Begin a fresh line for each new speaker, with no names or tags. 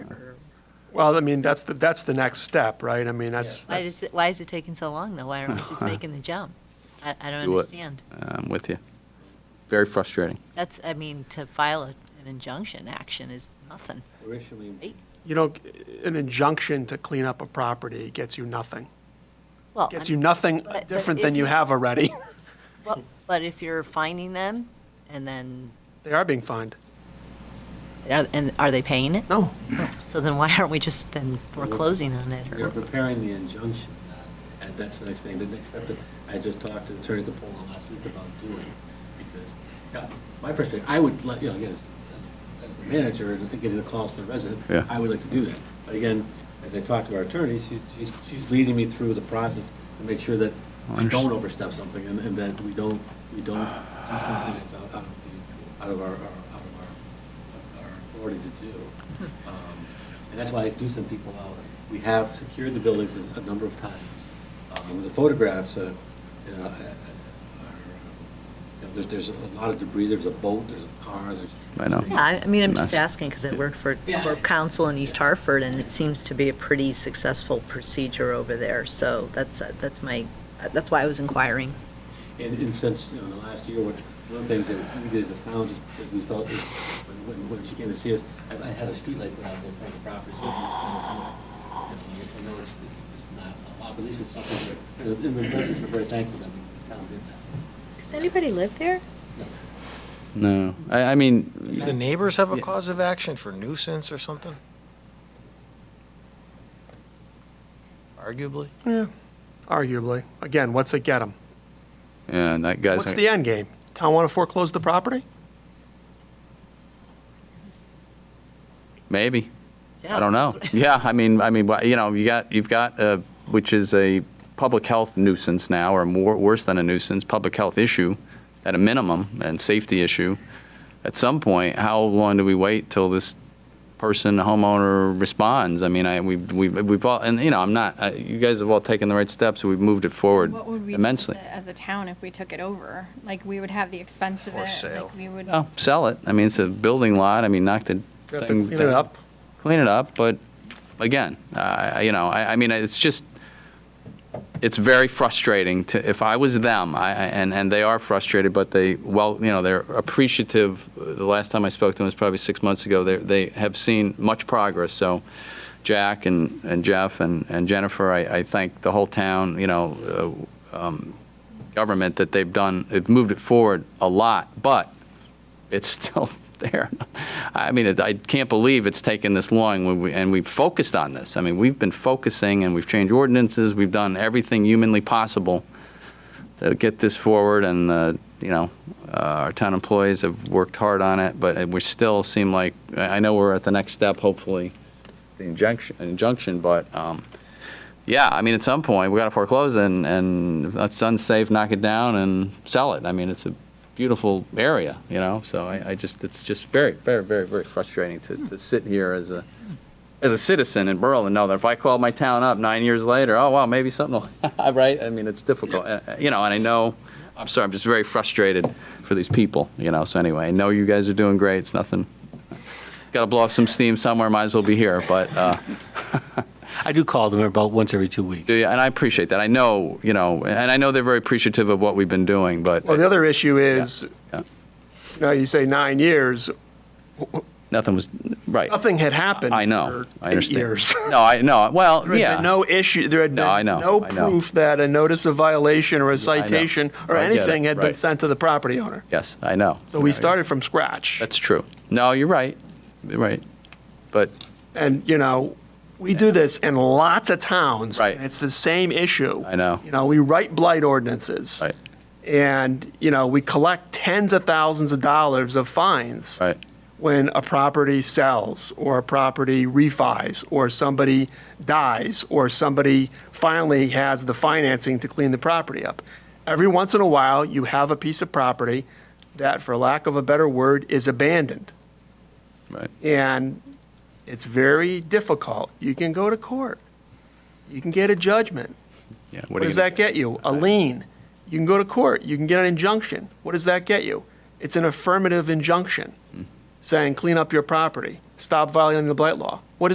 Well, I mean, that's the, that's the next step, right? I mean, that's,
Why
that's,
does, it- why is it taking so long, though? Why aren't we just making the jump? I, I don't
Do it.
understand.
I'm um, with you. Very frustrating.
That's, I mean, to file a- an injunction action is nothing, right?
you know, an injunction to clean up a property gets you nothing.
Well,
Gets
I'm-
you nothing
But- but
different
if
than you
you-
have already.
well, But if you're finding them, and then,
They are being fined.
are- and are they paying it?
No,
So then why aren't we just then foreclosing on it?
You're
or-
preparing the injunction, uh, and that's the next thing. The next step, that I just talked to Attorney Capola last week about doing, because, yeah, my frustration, I would, like, you know, again, as- as the manager, and getting the calls from the resident,
Yeah.
I would like to do that. But again, as I talked to our attorney, she's, she's, she's leading me through the process to make sure that we
Understood.
don't overstep something, and, and that we don't, we don't do something that's out out of, the- out of our, our- out of our, our authority to do. Um, and that's why I do send people out. We have secured the buildings a a number of times. Um, The photographs, uh, you know, uh, uh, are, uh, you know, there's, there's a lot of debris, there's a boat, there's a car, there's.
I know.
Yeah, I I mean, I'm just
Nice.
asking because I work for,
Yeah.
for council in East Hartford and it seems to be a pretty successful procedure over there. So that's, uh, that's my, uh, that's why I was inquiring.
And, and since, you know, the last year, one one of the things that we did as a town, just that we felt, is when, when- when she came to see us, I, I had a streetlight put out there in front of the property, so it was, you know, it's, you know, I know it's, it's- it's not a lot, but at least it's something, that- and the residents were very thankful that the town did that.
Does anybody live there?
No, I, I mean,
Do the neighbors have a
Yeah.
cause of action for nuisance or something? Arguably.
yeah, arguably. Again, what's it get them?
yeah, that guy's.
What's the end game? Town want to foreclose the property?
Maybe.
Yeah,
I don't know. Yeah, I mean, I mean, wh- you know, you got, you've got, uh, which is a public health nuisance now, or more, worse than a nuisance, public health issue at a minimum, and safety issue. At some point, how long do we wait till this person, the homeowner, responds? I mean, I, we've, we've, we've all, and, you know, I'm not, I- you guys have all taken the right steps, we've moved it forward
What would we do
immensely.
with it As a town, if we took it over, like, we would have the expense of it.
For sale.
Like, we would,
No, sell it. I mean, it's a building lot, I mean, knock the.
You have to
thing
clean it
down.
up.
clean it up, but again, uh, you know, I, I mean, it's just, it's very frustrating to, if I was them, I, I- and, and they are frustrated, but they, well, you know, they're appreciative. The last time I spoke to them was probably six months ago. They, they have seen much progress, so Jack and, and Jeff and, and Jennifer, I, I thank the whole town, you know, uh, um, government that they've done, they've moved it forward a lot, but it's still there. I mean, it- I can't believe it's taken this long, when we- and we've focused on this. I mean, we've been focusing, and we've changed ordinances, we've done everything humanly possible to get this forward, and, uh, you know, uh, our town employees have worked hard on it, but we still seem like, I I know we're at the next step, hopefully, the injunction, injunction, but, um, yeah, I mean, at some point, we got to foreclose and, and if that's unsafe, knock it down and sell it. I mean, it's a beautiful area, you know? So I, I just, it's just very, very, very, very frustrating to, to sit here as a, as a citizen in Berlin, know that if I call my town up nine years later, oh, wow, maybe something will, right? I mean, it's difficult, Uh, uh, you know, and I know, I'm sorry, I'm just very frustrated for these people, you know? So anyway, I know you guys are doing great. It's nothing. Got to blow off some steam somewhere. Might as well be here, but, uh,
I do call them about once every two weeks.
yeah, and I appreciate that. I know, you know, and I know they're very appreciative of what we've been doing, but
Well, the other issue is,
Yeah.
you know, you say nine years,
nothing was right.
nothing had happened.
I
for
know. I
eight
understand.
years.
No, I know. Well,
There had
yeah.
been no issue, there had
No, I
been
know,
no
I know.
proof that a notice of violation or a
I know.
citation or
I get it,
anything had been
right.
sent to the property owner.
Yes, I know.
So we
Yeah,
started from scratch.
That's true. No, you're right. You're right. But
And, you know, we do this in lots of towns.
Right.
and It's the same issue.
I know.
You know, we write blight ordinances.
right,
And, you know, we collect tens of thousands of dollars of fines.
right,
when a property sells or a property refis or somebody dies or somebody finally has the financing to clean the property up. Every once in a while, you have a piece of property that, for lack of a better word, is abandoned.
right.
And it's very difficult. You can go to court. You can get a judgment.
Yeah.
What
are you
does
gonna-
that get you? A lien. You can go to court. You can get an injunction. What does that get you? It's an affirmative injunction saying, clean up your property, stop violating the blight law. What